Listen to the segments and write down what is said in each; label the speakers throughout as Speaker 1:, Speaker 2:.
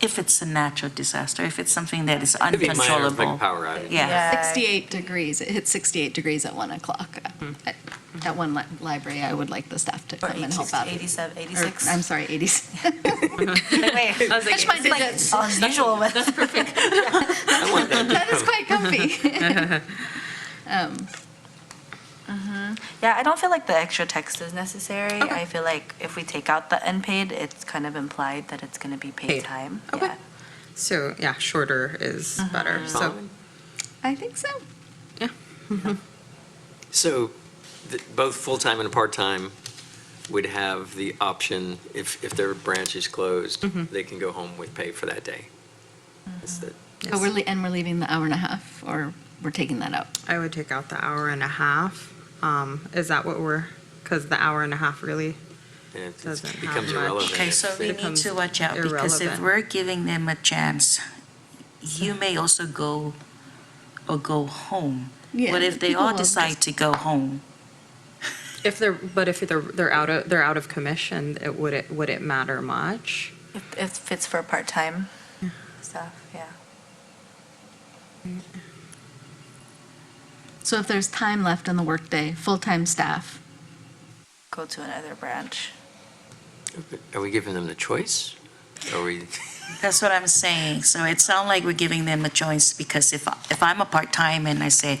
Speaker 1: if it's a natural disaster, if it's something that is
Speaker 2: Could be minor, like
Speaker 1: uncontrollable.
Speaker 2: power outage.
Speaker 1: Yeah,
Speaker 3: 68 degrees, it hit 68 degrees at 1 o'clock. At at one li- library, I would like the staff to
Speaker 4: Or
Speaker 3: come and help out.
Speaker 4: 87,
Speaker 3: Or,
Speaker 4: 86.
Speaker 3: I'm sorry, 86.
Speaker 4: Wait,
Speaker 5: I was
Speaker 3: Touch
Speaker 5: like,
Speaker 3: my digits.
Speaker 4: unusual weather.
Speaker 2: I want that.
Speaker 3: That is quite comfy. Um,
Speaker 4: Yeah, I don't feel like the extra text is necessary.
Speaker 3: Okay.
Speaker 4: I feel like if we take out the unpaid, it's kind of implied that it's going to be paid
Speaker 5: Paid.
Speaker 4: time.
Speaker 5: Okay.
Speaker 4: Yeah.
Speaker 5: so, yeah, shorter is better, so.
Speaker 3: I think so.
Speaker 2: So th- both full-time and part-time would have the option, if, if their branch is closed,
Speaker 1: Mm-hmm.
Speaker 2: they can go home with pay for that day. That's the-
Speaker 3: But we're, le- and we're leaving the hour and a half, or we're taking that out.
Speaker 5: I would take out the hour and a half. Um, is that what we're, because the hour and a half really,
Speaker 2: and it-
Speaker 5: Doesn't
Speaker 2: It
Speaker 5: have
Speaker 2: becomes
Speaker 5: much.
Speaker 2: irrelevant.
Speaker 1: okay,
Speaker 2: if
Speaker 1: so
Speaker 2: they-
Speaker 1: we need to watch out, because if
Speaker 5: irrelevant.
Speaker 1: we're giving them a chance, you may also go, or go home.
Speaker 3: Yeah,
Speaker 1: What if they
Speaker 3: people
Speaker 1: all
Speaker 3: will just-
Speaker 1: decide to go home?
Speaker 5: if they're, but if they're, they're out of, they're out of commission, it, would it, would it matter much?
Speaker 4: If if it fits for part-time
Speaker 5: Hmm.
Speaker 4: stuff, yeah.
Speaker 3: So if there's time left in the workday, full-time staff,
Speaker 4: Go to another branch.
Speaker 2: Are we giving them the choice? Are we?
Speaker 1: That's what I'm saying. So it sounds like we're giving them a choice because if, if I'm a part-time and I say,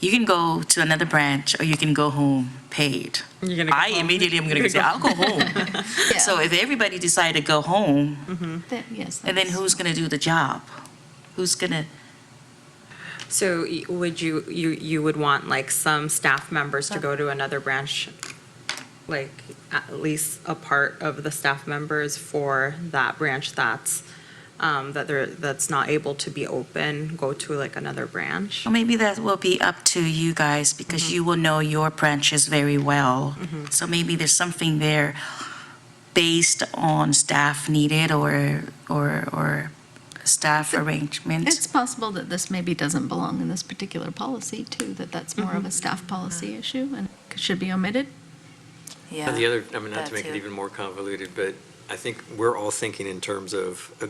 Speaker 1: you can go to another branch or you can go home paid,
Speaker 5: You're gonna go
Speaker 1: I
Speaker 5: home.
Speaker 1: immediately am going to say, I'll go home.
Speaker 3: Yeah.
Speaker 1: So if everybody decide to go home,
Speaker 3: that- yes.
Speaker 1: and then
Speaker 3: that's-
Speaker 1: who's going to do the job? Who's going to,
Speaker 5: So y- would you, you, you would want like some staff members to go to another branch? Like at least a part of the staff members for that branch that's, um, that they're, that's not able to be open, go to like another branch?
Speaker 1: Well, maybe that will be up to you guys because you will know your branches very well. So maybe there's something there based on staff needed or, or, or staff arrangement.
Speaker 3: It's possible that this maybe doesn't belong in this particular policy, too, that that's more of a staff policy issue and should be omitted.
Speaker 4: Yeah.
Speaker 2: And The other, I mean, not
Speaker 4: That
Speaker 2: to make it
Speaker 4: too.
Speaker 2: even more convoluted, but I think we're all thinking in terms of a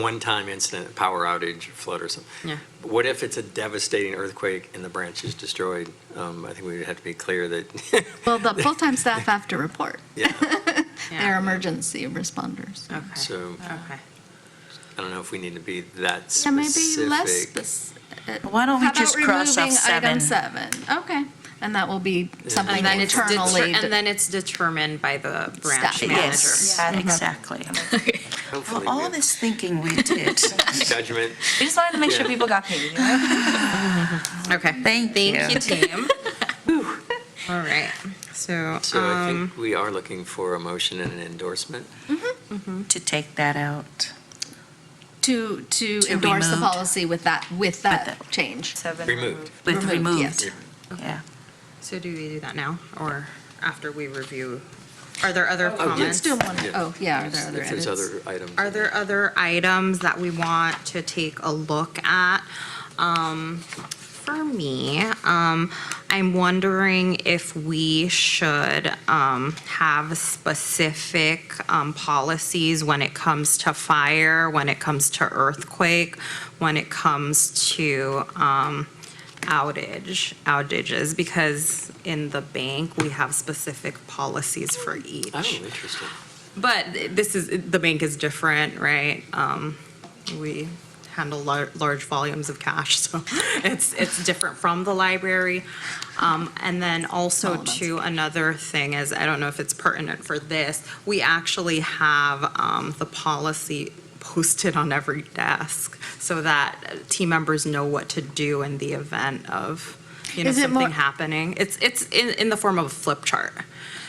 Speaker 2: one-time incident, a power outage, flood or something.
Speaker 5: Yeah.
Speaker 2: But What if it's a devastating earthquake and the branch is destroyed? Um, I think we would have to be clear that,
Speaker 3: Well, the full-time staff have to report.
Speaker 2: yeah,
Speaker 3: They're emergency responders.
Speaker 5: Okay,
Speaker 2: so
Speaker 5: okay.
Speaker 2: I don't know if we need to be that
Speaker 3: Yeah, maybe less
Speaker 2: specific.
Speaker 3: specific.
Speaker 1: Why don't we just cross off seven?
Speaker 3: Item seven, okay, and that will be something
Speaker 5: And then it's, deter-
Speaker 3: internally.
Speaker 5: and then it's determined by the branch
Speaker 3: Staff.
Speaker 5: manager.
Speaker 1: Yes,
Speaker 4: Yeah.
Speaker 1: exactly.
Speaker 2: Hopefully,
Speaker 1: Well, all
Speaker 2: with
Speaker 1: this thinking we did.
Speaker 2: judgment.
Speaker 4: We just wanted to make sure
Speaker 2: Yeah.
Speaker 4: people got paid, you know?
Speaker 5: Okay.
Speaker 1: Thank you.
Speaker 5: team. All right, so,
Speaker 2: So I
Speaker 5: um,
Speaker 2: think we are looking for a motion and an endorsement.
Speaker 1: To take that out.
Speaker 3: To, to
Speaker 1: To
Speaker 3: endorse the
Speaker 1: removed.
Speaker 3: policy with that, with that
Speaker 1: that.
Speaker 3: change.
Speaker 4: Seven
Speaker 2: Removed.
Speaker 4: removed.
Speaker 1: With
Speaker 3: Removed, yes.
Speaker 1: removed. Yeah.
Speaker 5: so do we do that now or after we review? Are there other comments?
Speaker 3: Let's do one, oh, yeah, are there other
Speaker 2: If there's
Speaker 3: edits?
Speaker 2: other items.
Speaker 5: Are there other items that we want to take a look at? Um, For me, um, I'm wondering if we should um, have specific um, policies when it comes to fire, when it comes to earthquake, when it comes to um, outage, outages, because in the bank, we have specific policies for each.
Speaker 2: Oh, interesting.
Speaker 5: But this is, the bank is different, right? Um, we handle lar- large volumes of cash, so it's, it's different from the library. Um, and then
Speaker 3: Oh,
Speaker 5: also
Speaker 3: that's-
Speaker 5: too, another thing is, I don't know if it's pertinent for this, we actually have, um, the policy posted on every desk so that uh, team members know what to do in the event of, you know,
Speaker 3: Is it more-
Speaker 5: something happening. It's, it's in, in the form of a flip chart.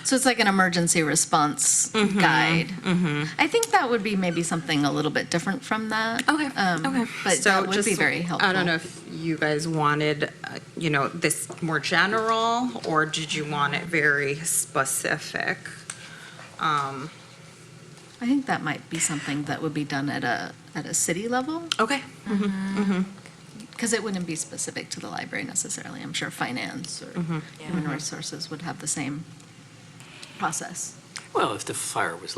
Speaker 3: So it's like an emergency response guide. I think that would be maybe something a little bit different from that.
Speaker 5: Okay,
Speaker 3: Um,
Speaker 5: okay.
Speaker 3: But
Speaker 5: Mm-hmm. So
Speaker 3: that would be
Speaker 5: just-
Speaker 3: very helpful.
Speaker 5: I don't know if you guys wanted, uh, you know, this more general, or did you want it very specific? Um,
Speaker 3: I think that might be something that would be done at a, at a city level,
Speaker 5: Okay.
Speaker 3: because it wouldn't be specific to the library necessarily. I'm sure finance or human resources would have the same process.
Speaker 2: Well, if the fire was